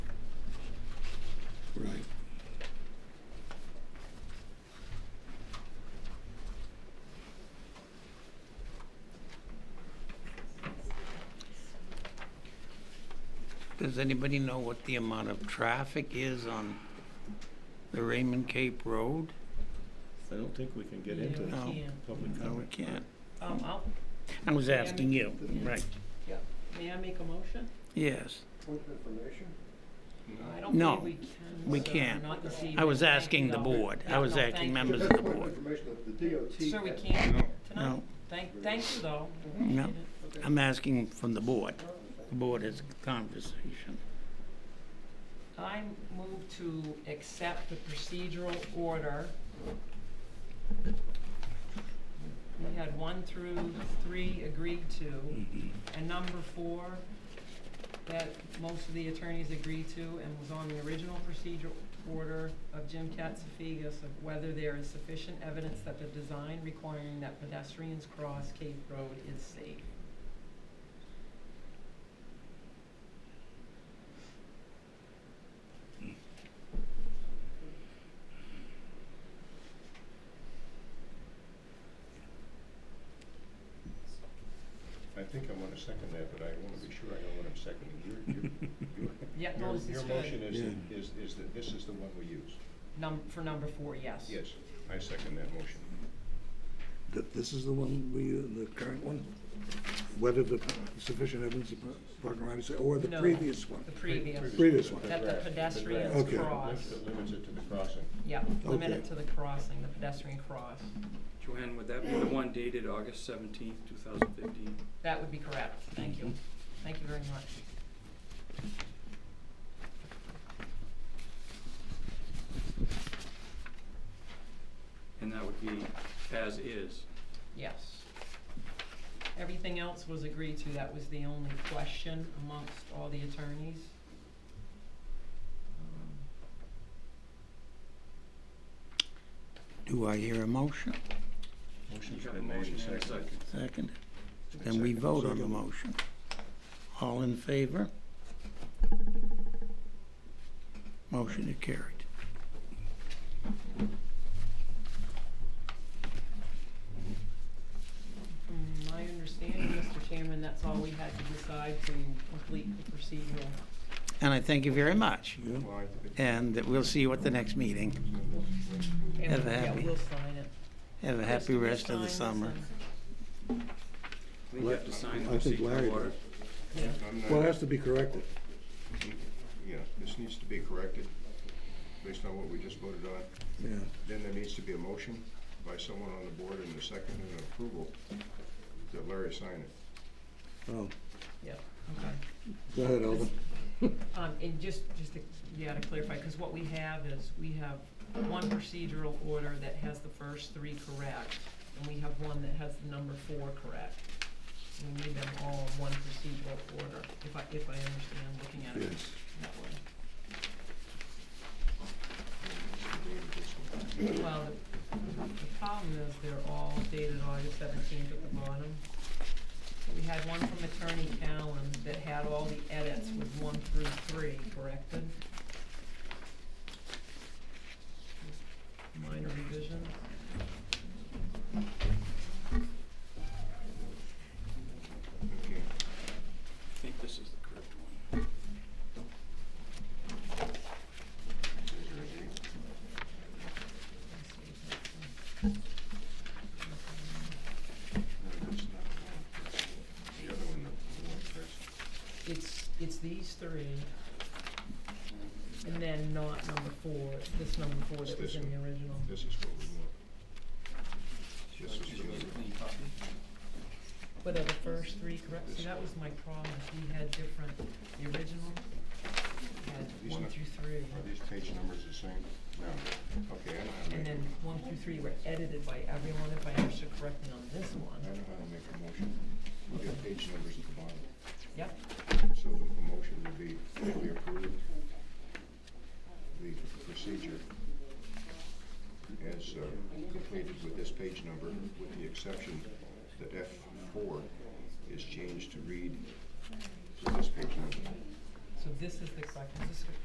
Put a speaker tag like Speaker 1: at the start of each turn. Speaker 1: Right.
Speaker 2: Does anybody know what the amount of traffic is on the Raymond Cape Road?
Speaker 1: I don't think we can get
Speaker 3: Yeah,
Speaker 1: into
Speaker 3: we
Speaker 2: No.
Speaker 3: can.
Speaker 1: public
Speaker 2: No, we
Speaker 1: comment.
Speaker 2: can't.
Speaker 3: Um, I'll,
Speaker 2: I was asking you, right,
Speaker 3: may I make a motion?
Speaker 2: yes.
Speaker 4: Point of information?
Speaker 3: I don't
Speaker 2: No,
Speaker 3: believe we can.
Speaker 2: we
Speaker 3: sir,
Speaker 2: can't.
Speaker 3: not this
Speaker 2: I was
Speaker 3: evening. Thank
Speaker 2: asking
Speaker 3: you,
Speaker 2: the
Speaker 3: though.
Speaker 2: board. I
Speaker 3: Yeah,
Speaker 2: was
Speaker 3: no,
Speaker 2: asking
Speaker 3: thank you.
Speaker 2: members of
Speaker 4: That's
Speaker 2: the
Speaker 4: point
Speaker 2: board.
Speaker 4: information that the DOT.
Speaker 3: Sir, we
Speaker 4: has.
Speaker 3: can't tonight.
Speaker 2: No,
Speaker 3: Thank, thank you though.
Speaker 2: No.
Speaker 4: Okay.
Speaker 2: I'm asking from the board. The board has a conversation.
Speaker 3: I move to accept the procedural order. We had one through three agreed to, and number four, that most of the attorneys agreed to and was on the original procedural order of Jim Katsifigas of whether there is sufficient evidence that the design requiring that pedestrians cross Cape Road is safe.
Speaker 1: I think I want to second that, but I want to be sure I know what I'm seconding. Your, your,
Speaker 3: Yeah,
Speaker 1: your,
Speaker 3: no, this is
Speaker 1: your
Speaker 3: good.
Speaker 1: motion is,
Speaker 5: Yeah.
Speaker 1: is, is that this is the one we use.
Speaker 3: Num- for number four, yes.
Speaker 1: Yes, I second that motion.
Speaker 5: That this is the one we, uh, the current one? Whether the sufficient evidence of parking right of way, or the
Speaker 3: No.
Speaker 5: previous one?
Speaker 3: The previous.
Speaker 5: Previous one.
Speaker 3: That the
Speaker 1: draft,
Speaker 3: pedestrians
Speaker 1: draft.
Speaker 5: Okay.
Speaker 3: cross.
Speaker 1: That Limits it to the crossing.
Speaker 3: Yeah, limit it
Speaker 5: Okay.
Speaker 3: to the crossing, the pedestrian cross.
Speaker 6: Joanne, would that be the one dated August seventeenth, two thousand fifteen?
Speaker 3: That would be correct. Thank you. Thank you very much.
Speaker 6: And that would be as is.
Speaker 3: Yes. Everything else was agreed to. That was the only question amongst all the attorneys. Um,
Speaker 2: Do I hear a motion?
Speaker 1: Motion's
Speaker 6: You have a
Speaker 1: been made
Speaker 6: motion
Speaker 1: and
Speaker 6: and a
Speaker 1: seconded.
Speaker 6: second.
Speaker 2: Second. Then we vote on the motion. All in favor? Motion is carried.
Speaker 3: From Mm, my understanding, Mr. Chairman, that's all we had to decide to complete the procedural.
Speaker 2: And I thank you very much.
Speaker 1: Well, I think it-
Speaker 2: And we'll see you at the next meeting.
Speaker 3: And
Speaker 2: Have a
Speaker 3: yeah,
Speaker 2: happy-
Speaker 3: we'll sign it.
Speaker 2: Have a
Speaker 3: Chris, do
Speaker 2: happy
Speaker 3: you
Speaker 2: rest of
Speaker 3: sign
Speaker 2: the
Speaker 3: this
Speaker 2: summer.
Speaker 3: and-
Speaker 6: I think you have to sign the
Speaker 5: I think
Speaker 6: receipt of
Speaker 5: Larry
Speaker 6: order.
Speaker 5: did.
Speaker 3: Yeah.
Speaker 1: I'm not-
Speaker 5: Well, it has to be corrected.
Speaker 1: Yeah, this needs to be corrected based on what we just voted on.
Speaker 5: Yeah.
Speaker 1: Then there needs to be a motion by someone on the board and a second and an approval that Larry sign it.
Speaker 5: Oh,
Speaker 3: Yeah, okay.
Speaker 5: go ahead, Alden.
Speaker 3: Um, and just, just to, yeah, to clarify, because what we have is, we have one procedural order that has the first three correct, and we have one that has the number four correct. We need them all in one procedural order, if I, if I understand, looking at it
Speaker 5: Yes.
Speaker 3: that way.
Speaker 1: Dated this one.
Speaker 3: Well, the, the problem is they're all dated August seventeenth at the bottom. We had one from Attorney Callan that had all the edits with one through three corrected. Minor revisions.
Speaker 1: Okay.
Speaker 6: I think this is the correct one.
Speaker 1: The other one, the one first.
Speaker 3: It's, it's these three, and then not number four, this number four
Speaker 1: It's
Speaker 3: that was
Speaker 1: this
Speaker 3: in the
Speaker 1: one.
Speaker 3: original.
Speaker 1: This is what we want. This is the
Speaker 6: Just
Speaker 1: other
Speaker 6: a
Speaker 1: one.
Speaker 6: clean copy.
Speaker 3: But are the first three correct? See, that was my problem, is we had different, the original had
Speaker 1: These
Speaker 3: one
Speaker 1: are-
Speaker 3: through three.
Speaker 1: Are these page numbers the same? No. Okay, I know how to
Speaker 3: And
Speaker 1: make,
Speaker 3: then one through three were edited by everyone, if I understood correctly on this
Speaker 1: I know
Speaker 3: one.
Speaker 1: how to make a motion. We'll get page numbers at the bottom.
Speaker 3: Yep,
Speaker 1: So the motion would be, that we approve the procedure as uh, completed with this page number, with the exception that F four is changed to read to this page number.
Speaker 3: so this is the correct, is this